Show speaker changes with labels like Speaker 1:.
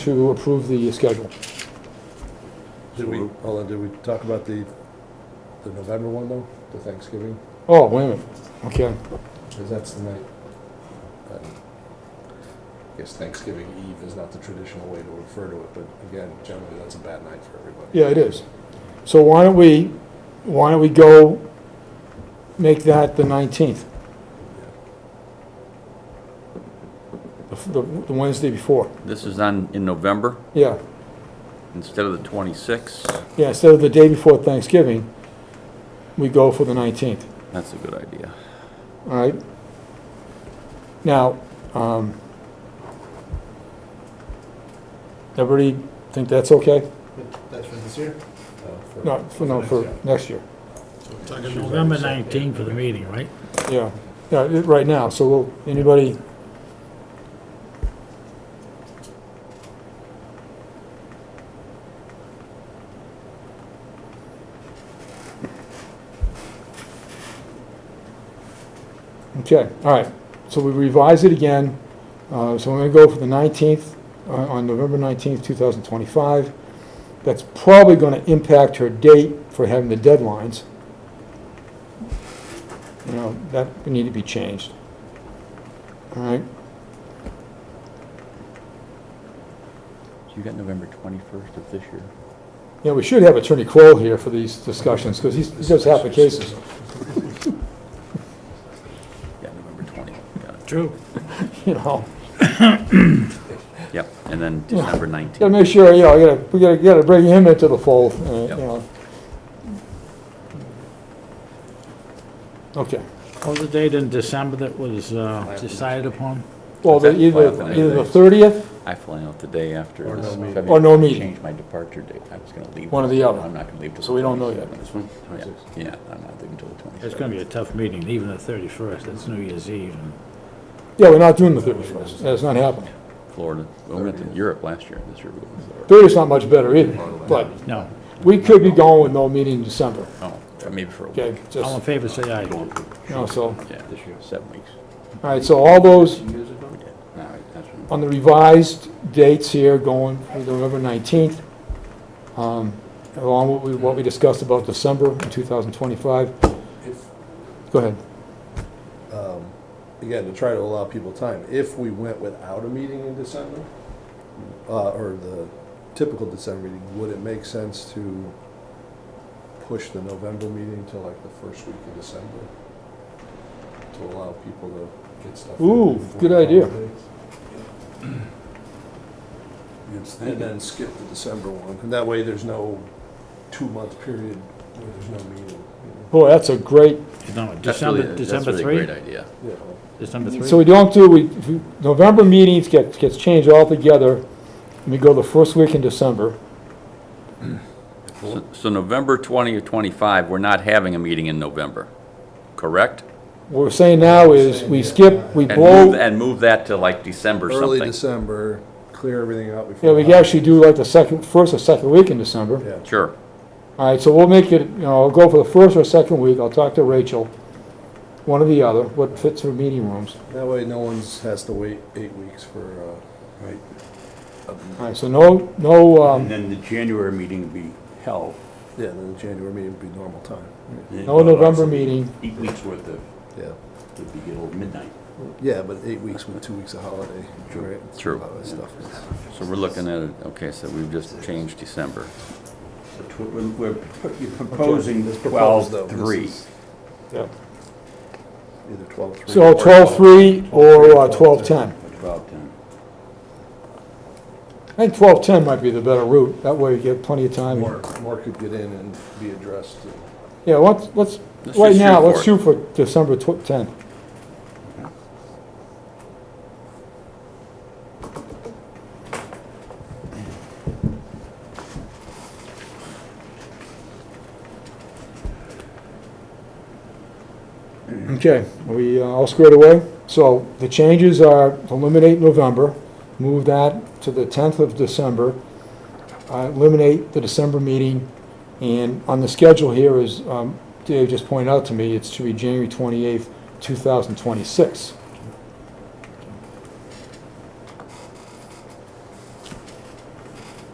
Speaker 1: to approve the schedule.
Speaker 2: Did we, hold on, did we talk about the, the November one though, the Thanksgiving?
Speaker 1: Oh, wait a minute, okay.
Speaker 2: 'Cause that's the night. um, I guess Thanksgiving Eve is not the traditional way to refer to it, but again, generally, that's a bad night for everybody.
Speaker 1: Yeah, it is. So why don't we, why don't we go make that the 19th? The f- The the Wednesday before,
Speaker 3: This is on, in November,
Speaker 1: yeah.
Speaker 3: instead of the 26th.
Speaker 1: Yeah, instead of the day before Thanksgiving, we go for the 19th,
Speaker 3: That's a good idea.
Speaker 1: all right? Now, um, everybody think that's okay?
Speaker 4: That's for this year?
Speaker 2: Uh, for-
Speaker 1: No, for, no, for next year.
Speaker 4: Talking
Speaker 5: November 19 for the meeting, right?
Speaker 1: Yeah, yeah, it- right now, so will, anybody? Okay, all right, so we revise it again, uh, so we're gonna go for the nineteenth, on, on November nineteenth, two thousand twenty-five. That's probably gonna impact her date for having the deadlines you know, that would need to be changed. All right,
Speaker 3: So you got November 21st of this year?
Speaker 1: yeah, we should have Attorney Crowell here for these discussions, because he's, he does half the cases.
Speaker 3: Yeah, November 20th, got
Speaker 5: True.
Speaker 1: You know,
Speaker 3: it. Yep, and then December 19th.
Speaker 1: gotta make sure, you know, you gotta, we gotta, gotta bring him into the fold, uh, you
Speaker 3: Yep.
Speaker 1: know. Okay,
Speaker 5: What was the date in December that was uh, decided upon?
Speaker 1: well, the- either,
Speaker 3: Definitely.
Speaker 1: either the thirtieth,
Speaker 3: I fly out the day after.
Speaker 2: Or no
Speaker 3: this
Speaker 2: meeting.
Speaker 3: February.
Speaker 1: Or no meeting.
Speaker 3: Change my departure date. I was going to leave.
Speaker 1: One or the other.
Speaker 3: I'm not going to leave till.
Speaker 1: So we don't know yet.
Speaker 3: 27th.
Speaker 2: This one?
Speaker 3: Yeah, Yeah, I'm not leaving till the 27th.
Speaker 5: It's going to be a tough meeting, even the 31st, that's New Year's Eve. and
Speaker 1: yeah, we're not doing the thirty-first, that's not happening.
Speaker 3: Florida. Well, We went to Europe last year, this year we went to Florida.
Speaker 1: Thirtieth's not much better either, but
Speaker 5: No,
Speaker 1: we could be going with no meeting in December,
Speaker 3: Oh, maybe for a week.
Speaker 1: okay,
Speaker 5: all in
Speaker 1: just,
Speaker 5: favor, say aye.
Speaker 1: you know, so, all
Speaker 3: Yeah, this year, seven weeks.
Speaker 1: right, so all those
Speaker 3: Yeah, all right, that's what-
Speaker 1: on the revised dates here going through November 19th, um, along with what we discussed about December of 2025.
Speaker 2: If,
Speaker 1: Go ahead.
Speaker 2: um, again, to try to allow people time, if we went without a meeting in December, uh, or the typical December meeting, would it make sense to push the November meeting to like the first week of December? To allow people to get stuff. in
Speaker 1: Ooh,
Speaker 2: before
Speaker 1: good
Speaker 2: the
Speaker 1: idea.
Speaker 2: holidays? And then skip the December one, and that way there's no two-month period where there's no meeting, you
Speaker 1: Boy, that's a great,
Speaker 5: No,
Speaker 3: That's really-
Speaker 5: December, December
Speaker 3: That's really a
Speaker 5: 3?
Speaker 3: great idea.
Speaker 2: know, you know.
Speaker 5: December 3?
Speaker 1: so we don't do, we, if you- November meetings get, gets changed altogether, and we go the first week in December.
Speaker 3: So- So November 20 or 25, we're not having a meeting in November, correct?
Speaker 1: What we're saying now is, we skip, we
Speaker 3: And move,
Speaker 1: blow,
Speaker 3: and move that to like December
Speaker 2: early
Speaker 3: something.
Speaker 2: December, clear everything out before.
Speaker 1: yeah, we
Speaker 2: the holidays.
Speaker 1: actually do like the second, first or second week in December.
Speaker 2: Yeah.
Speaker 3: Sure.
Speaker 1: All right, so we'll make it, you know, I'll go for the first or second week, I'll talk to Rachel, one or the other, what fits her meeting rooms.
Speaker 2: That way, no one's has to wait eight weeks for, uh, right.
Speaker 1: All right, so no, no,
Speaker 6: And
Speaker 1: um,
Speaker 6: then the January meeting will be held.
Speaker 2: Yeah, then the January meeting would be normal time.
Speaker 1: no November meeting,
Speaker 6: Eight weeks worth of,
Speaker 2: Yeah,
Speaker 6: would be good old midnight.
Speaker 2: yeah, but eight weeks with two weeks of holiday, right?
Speaker 3: True.
Speaker 2: A lot of stuff.
Speaker 3: So we're looking at, it. okay, so we've just changed December.
Speaker 6: So tw- We're, we're- you're proposing
Speaker 2: This proposed, though, this
Speaker 6: 12-3.
Speaker 2: is
Speaker 1: Yeah.
Speaker 2: Either twelve three.
Speaker 1: so twelve-three or uh, twelve-ten.
Speaker 6: or 12-10.
Speaker 1: I think twelve-ten might be the better route, that way you get plenty of time.
Speaker 2: More, more could get in and be addressed. and-
Speaker 1: Yeah, let's, let's,
Speaker 3: Let's
Speaker 1: right
Speaker 3: just shoot
Speaker 1: now, let's
Speaker 3: for it.
Speaker 1: shoot for December tw- tenth. Okay, are we uh, all squared away? So the changes are eliminate November, move that to the tenth of December, uh, eliminate the December meeting, and on the schedule here is, um, Dave just pointed out to me, it's to be January 28th, 2026.